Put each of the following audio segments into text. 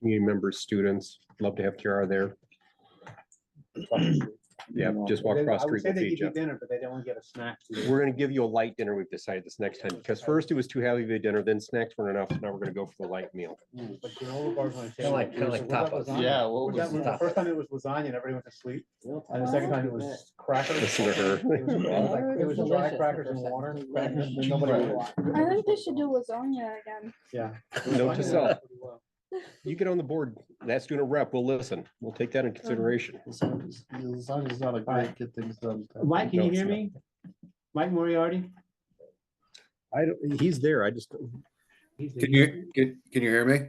community members, students, love to have Kiara there. Yeah, just walk They- across I would street say with they each give you other. dinner, but they don't get a snack. We're gonna give you a light dinner, we've decided this next time, because first it was too heavy of a dinner, then snacks weren't enough, so now we're gonna go for the light meal. But granola bars on the Kinda table. like- kinda Was like it- was that tapas. lasagna? Yeah, what Was was that- was The tapas? first time it was lasagna and everyone went to sleep, and the second time it was crackers. Listen to her. It was- it was like- It was dry crackers and water, crackers, and nobody. I think they should do lasagna again. Yeah. Note to Lasagna self. went pretty well. You get on the board, that's doing a rep, we'll listen, we'll take that in consideration. Lasagna's not a great get things done. time. Mike, can No, you it's hear not. me? Mike Moriarty? I don't, he's there, I just He's the- Can you, can, can you hear me?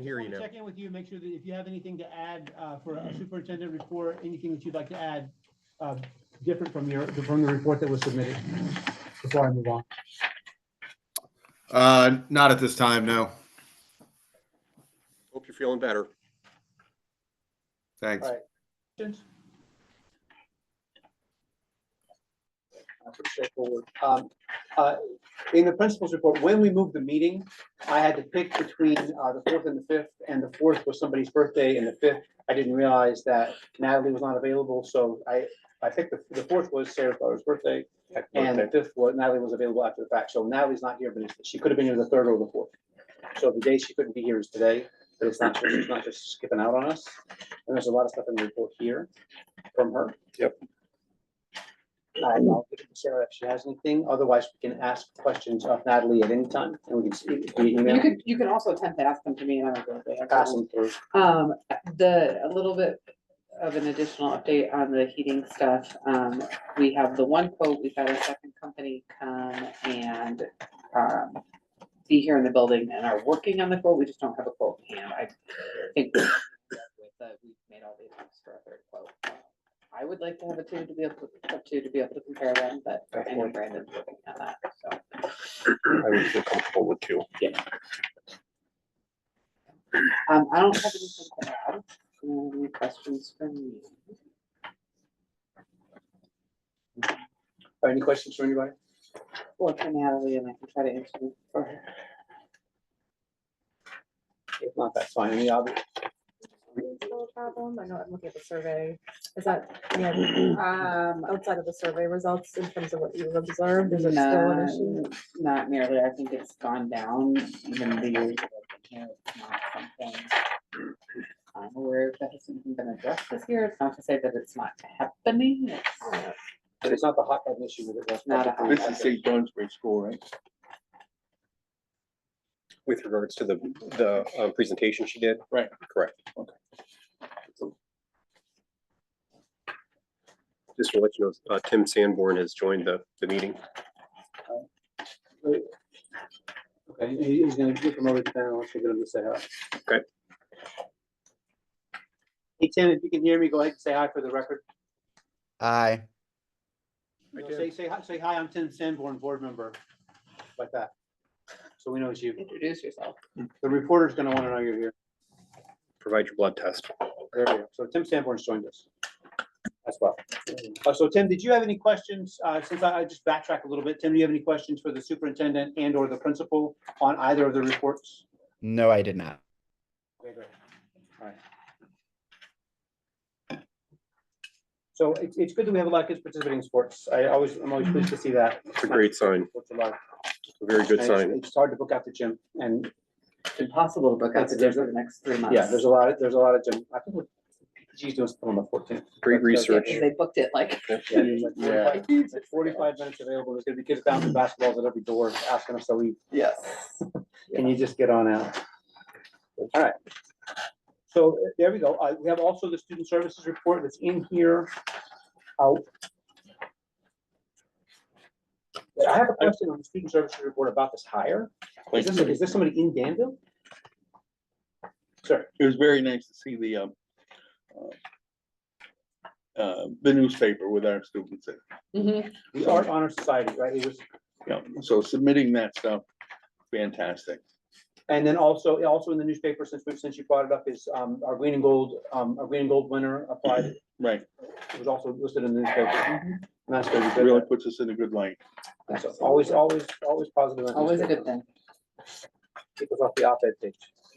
hear you Wanna now. Check in with you, make sure that if you have anything to add uh, for a superintendent report, anything that you'd like to add uh, different from your, from the report that was submitted before I move on. Uh, not at this time, no. Hope you're feeling better. Thanks. All right. Questions? Uh, pretty straightforward. Um, uh, In the principal's report, when we moved the meeting, I had to pick between uh, the fourth and the fifth, and the fourth was somebody's birthday, and the fifth, I didn't realize that Natalie was not available, so I, I picked the, the fourth was Sarah Flower's birthday, and the fifth was Natalie was available after the fact, so Natalie's not here, but it's- she could have been here the third or the fourth. So the day she couldn't be here is today, but it's not, she's not just skipping out on us. And there's a lot of stuff in the report here from her. Uh, Yep. And I'll give it to Sarah if she has anything. Otherwise, we can ask questions of Natalie at any time and we can see via You email, could, you can also attempt to ask them to me and I don't go there. pass them uh, through. Um, the, a little bit of an additional update on the heating stuff. Um, we have the one quote, we've had a second company come and, um, be here in the building and are working on the quote. We just don't have a quote in hand. I think we- that we've made all the attempts for a third quote. I would like to have a two to be able to, a two to be able to compare them, but I know Brandon's working on that, so. I would feel comfortable with two. Um, I don't have anything to add. Um, Any questions from you? Any questions from anybody? Or from Natalie and I can try to answer them for her. If not, that's fine. I mean, I'll be- reasonable problem? I know I'm looking at the survey. Is that, yeah, um, outside of the survey results in terms of what you observed, is it still an issue? Not- Not merely, I think it's gone down even the years. that I've been here, it's not something I'm aware of that has even been addressed this year. It's not to say that it's not happening. It's but it's not the hot button issue that it was. not a. hot This is topic. St. Johnsbury School, right? With regards to the, the uh, presentation she did? Right. Correct. Just to let you know, uh, Tim Sanborn has joined the, the meeting. Okay, he- he's gonna get promoted to panel, so you're gonna say hi. Okay. Hey, Tim, if you can hear me, go ahead and say hi for the record. Aye. Hi, No, Tim. Say, say, hi- say hi, I'm Tim Sanborn, board member, like that. So we know it's you. Introduce yourself. The reporter's gonna wanna know you're here. Provide your blood test. There we go. So Tim Sanborn's joined us. That's well. Uh, So Tim, did you have any questions, uh, since I, I just backtrack a little bit, Tim, do you have any questions for the superintendent and or the principal on either of the reports? No, I did not. Okay, great. All right. So it's, it's good that we have a lot of kids participating in sports. I always, I'm always pleased to see that. It's a great sign, Sports are alive. a very good And it's- sign. It's hard to book out the gym and It's impossible to book out That's a the gym for different- the next three months. yeah, there's a lot, of there's a lot of gym. I think we're- PTG's doing something on the fourteenth. Great Yeah, research. 'cause They booked it like. Yeah. It's Forty-five minutes available. There's gonna be kids bouncing basketballs at every door asking us to leave. Yes. Can you just get on out? All right. So uh, there we go. Uh, we have also the student services report that's in here. Out. I have a question on the student services report about this hire. Is this, is this somebody in Danville? Sir, It was very nice to see the, um, uh, uh, the newspaper with our students. in. Mhm. the Art Honor Society, right? It was Yeah, so submitting that stuff, fantastic. And then also, also in the newspaper, since we, since you brought it up, is um, our green and gold, um, our green and gold winner applied. Right, It was also listed in the newspaper. And that's gonna be really good. puts us in a good light. That's Always, always, always positive. on Always a newspaper. good thing. Keep us off the op-ed page.